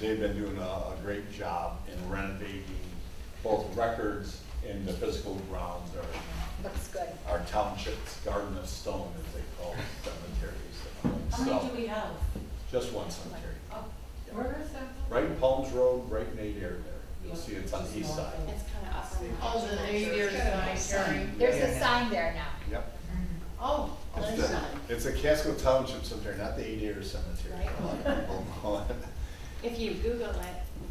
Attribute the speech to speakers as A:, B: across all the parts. A: They've been doing a, a great job in renovating both records and the physical grounds or
B: Looks good.
A: our township's garden of stone, as they call it, cemeteries.
C: How many do
A: So,
C: we have?
A: just one cemetery.
C: Oh, Where is that?
A: Right in Palms Road, right in Nate Air there. You'll see it's on the east side.
D: It's kind of awesome.
E: Oh, the New Year's cemetery.
B: There's a sign there now.
A: Yep.
E: Oh,
A: It's
E: that's
A: the-
E: not,
A: It's a Casco Township cemetery, not the Eight Acre Cemetery.
D: Right.
A: A lot of people know it.
D: If you Google it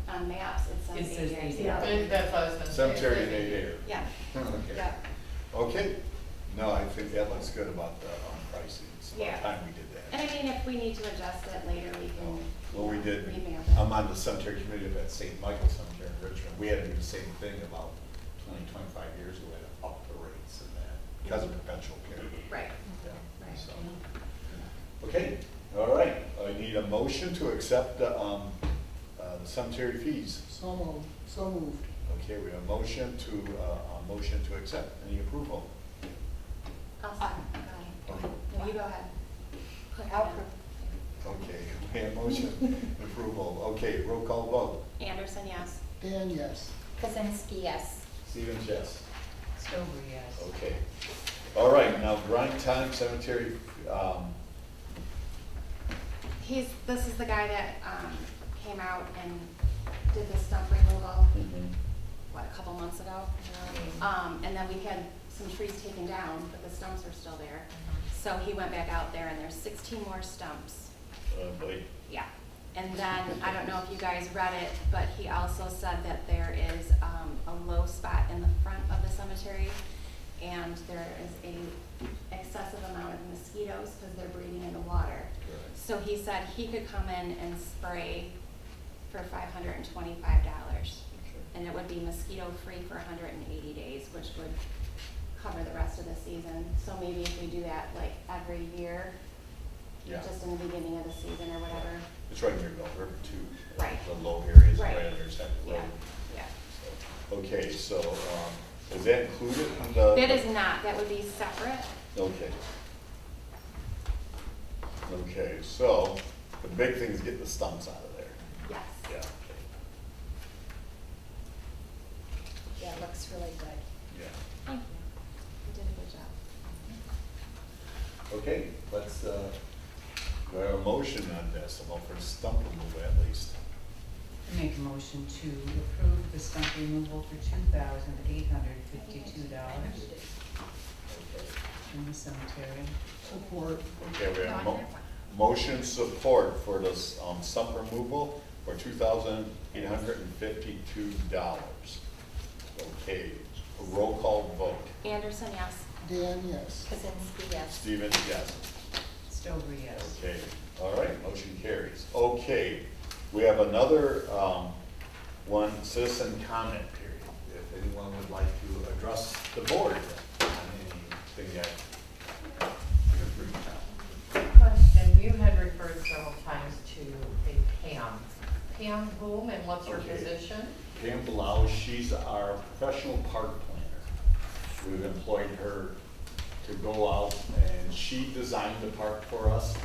D: on maps, it's on
C: It says
D: the
C: eight
D: Yeah.
E: that- that's what I was gonna say.
A: Cemetery in Eight Acre.
D: Yeah,
A: Okay.
D: yeah.
A: Okay, no, I think that looks good about the um, pricing, it's
D: Yeah.
A: about time we did
D: And I
A: that.
D: mean, if we need to adjust it later, we
A: Um,
D: can.
A: Well, we did, Um,
D: Email
A: I'm
D: it.
A: on the cemetery committee up at St. Michael's Cemetery in Richmond, we had to do the same thing about 20, 25 years ago, had to up the rates and that, because of perpetual care.
D: Right.
A: Yeah,
D: Right.
A: so. Okay, all right, I need a motion to accept the, um, uh, the cemetery fees.
F: So moved, so moved.
A: Okay, we have a motion to, uh, a motion to accept, any approval?
D: I'll send
A: Okay.
D: No, you go ahead.
B: I'll
A: Okay, we have motion approval. Okay, roll call vote.
D: Anderson, yes.
F: Dan, yes.
B: Kazinsky, yes.
A: Stevens, yes.
C: Stover, yes.
A: Okay. All right, now grind time cemetery, um,
D: He's, this is the guy that um, came out and did the stump removal, what, a couple months ago? Um, And then we had some trees taken down, but the stumps are still there. So he went back out there and there's 16 more stumps.
A: uh, Blake,
D: Yeah, and then, I don't know if you guys read it, but he also said that there is um, a low spot in the front of the cemetery, and there is a excessive amount of mosquitoes because they're breeding in the water.
A: Right.
D: So he said he could come in and spray for five hundred and twenty-five dollars.
A: Okay.
D: And it would be mosquito-free for hundred and eighty days, which would cover the rest of the season. So maybe if we do that like every year,
A: Yeah.
D: just in the beginning of the season or whatever.
A: it's right near Bell River too.
D: Right.
A: The low areas, right
D: Right.
A: intersect the
D: Yeah,
A: road.
D: yeah.
A: So, Okay, so, um, is that included in the?
D: That is not, that would be separate.
A: Okay. Okay, so the big thing is get the stumps out of there.
D: Yes.
A: Yeah, okay,
B: Yeah, it looks really good.
A: yeah.
D: Thank you. You did a good job.
A: Okay, let's, uh, do I have a motion on this, about for stump removal at least?
C: I Make a motion to approve the stump removal for two thousand eight hundred fifty-two dollars in the cemetery.
F: Support.
A: Okay, we have a mo- motion support for this, um, stump removal for two thousand eight hundred and fifty-two dollars. Okay, roll call vote,
D: Anderson, yes.
F: Dan, yes.
B: Kazinsky, yes.
A: Stevens, yes.
C: Stover, yes.
A: Okay, all right, motion carries. Okay, we have another, um, one citizen comment period. If anyone would like to address the board on anything that you're free to.
E: Question, you had referred several times to a Pam. Pam whom and what's her
A: Okay.
E: position?
A: Pam Blau, she's our professional park planner. We've employed her to go out and she designed the park for us.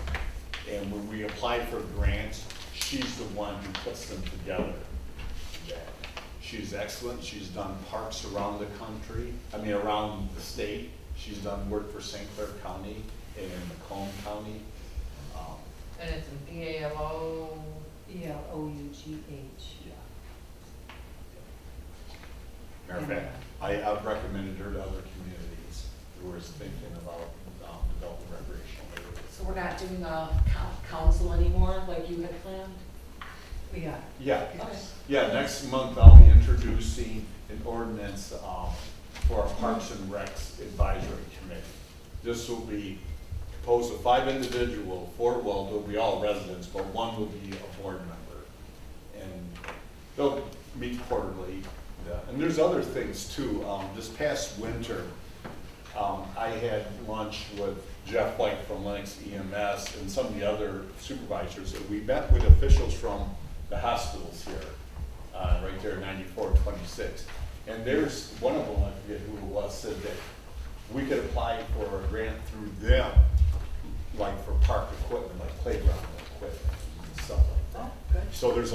A: And when we apply for grants, she's the one who puts them together. She's excellent, she's done parks around the country, I mean, around the state. She's done work for St. Clair County and in Macomb County. Um,
E: And it's B A L O,
C: E L O U G H.
A: yeah. Matter of fact, I, I've recommended her to other communities who are thinking about, um, developing recreational areas.
G: So we're not doing a coun- council anymore like you had planned?
C: We are.
A: Yeah,
G: Okay.
A: yeah, next month I'll be introducing an ordinance, um, for our Parks and Recs Advisory Committee. This will be composed of five individual, four, well, they'll be all residents, but one will be a board member. And they'll meet quarterly, yeah, and there's other things too, um, this past winter, um, I had lunch with Jeff White from Lennox EMS and some of the other supervisors, and we met with officials from the hospitals here, uh, right there, ninety-four, twenty-six. And there's, one of them, I forget who it was, said that we could apply for a grant through them, like for park equipment, like playground equipment, and stuff like that.
E: good.
A: So there's